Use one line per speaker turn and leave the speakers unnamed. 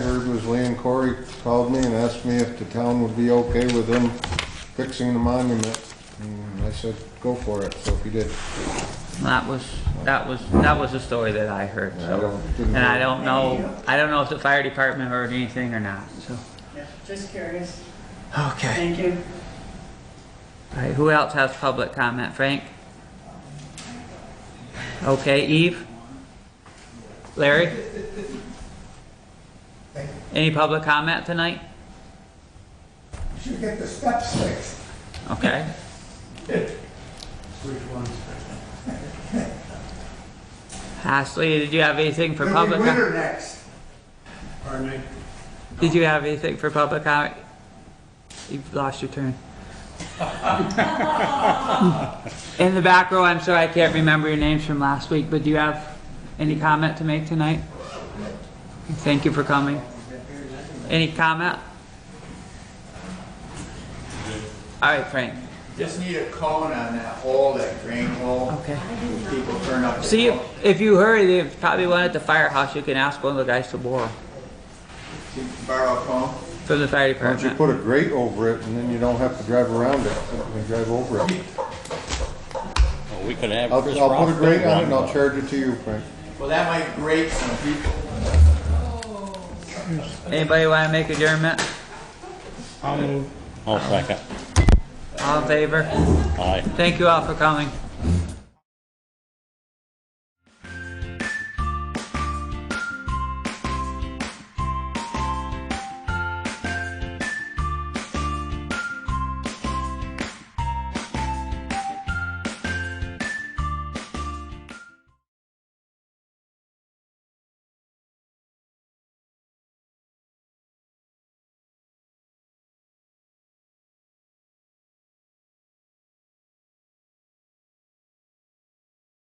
called me and asked me if the town would be okay with them fixing the monument. And I said, go for it, so he did.
That was, that was, that was the story that I heard,
I
so.
don't- didn't
And I
know.
don't know, I don't know if the fire department heard anything or not, so.
Yeah, Just curious.
Okay.
Thank you.
All right, who else has public comment? Frank? Okay, Eve? Larry? Any public comment tonight?
Should get the steps fixed.
Okay. Ashley, did you have anything for
It'll be
public? com-
winter next.
Pardon me?
Did you have anything for public comment? You've lost your turn. In the back row, I'm sorry, I can't remember your names from last week, but do you have any comment to make tonight? Thank you for coming. Any comment? All right, Frank.
Just need a cone on that hole, that drain hole.
Okay.
People turn up. the
See,
cone.
if, if you hurry, there's probably one at the firehouse. You can ask one of the guys to borrow
Can you Borrow a cone.
from the fire
Why don't you
department.
put a grate over it and then you don't have to drive around it, you can drive over it.
Well, We could have
I'll,
Chris
I'll put a
Rock
grate on it and
run
I'll charge it to you, Frank.
Well, that might grate some people.
Anybody want to make adjournment?
I'll second.
All in favor?
Aye.
Thank you all for coming.